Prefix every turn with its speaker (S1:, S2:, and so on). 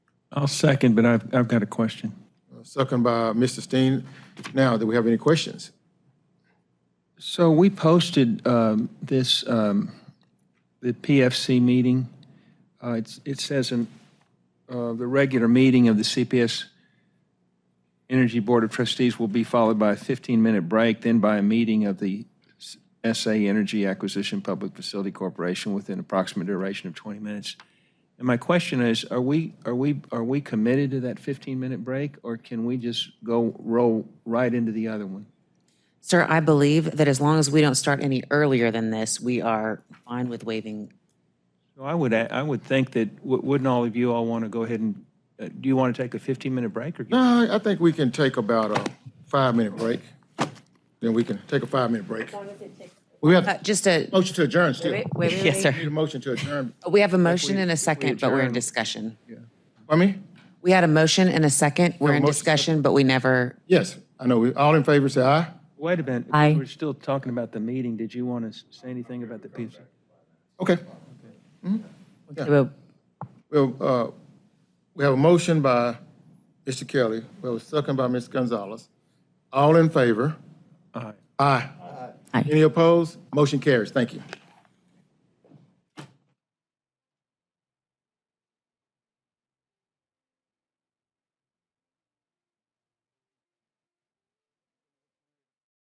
S1: I'll second, but I've, I've got a question.
S2: Second by Mr. Steen. Now, do we have any questions?
S1: So we posted um, this, um, the PFC meeting. Uh, it's- It says, in, uh, "The regular meeting of the CPS Energy Board of Trustees will be followed by a 15-minute break, then by a meeting of the S- SA Energy Acquisition Public Facility Corporation within approximate duration of 20 minutes." And my question is, are we, are we, are we committed to that 15-minute break, or can we just go roll right into the other one?
S3: Sir, I believe that as long as we don't start any earlier than this, we are fine with waiving.
S1: Well, I would, a- I would think that, w- wouldn't all of you all want to go ahead and, uh, do you want to take a 15-minute break or?
S2: Uh, I think we can take about a five-minute break. Then we can take a five-minute break. We
S3: Uh,
S2: have
S3: Just a,
S2: motion to adjourn still.
S3: wait, wait, wait,
S2: We Need a motion to adjourn.
S3: we have a motion and a second, but we're in discussion.
S2: I mean,
S3: We had a motion and a second, we're in
S2: motion, second.
S3: discussion, but we never,
S2: yes, I know. We All in favor, say aye.
S1: Wait a minute.
S3: Aye.
S1: We're still talking about the meeting. Did you want to say anything about the PFC?
S2: Okay. Well, uh, we have a motion by Mr. Kelly. We have a second by Ms. Gonzalez. All in favor?
S1: Aye.
S2: Aye.
S3: Aye.
S2: Any opposed? Motion carries. Thank you.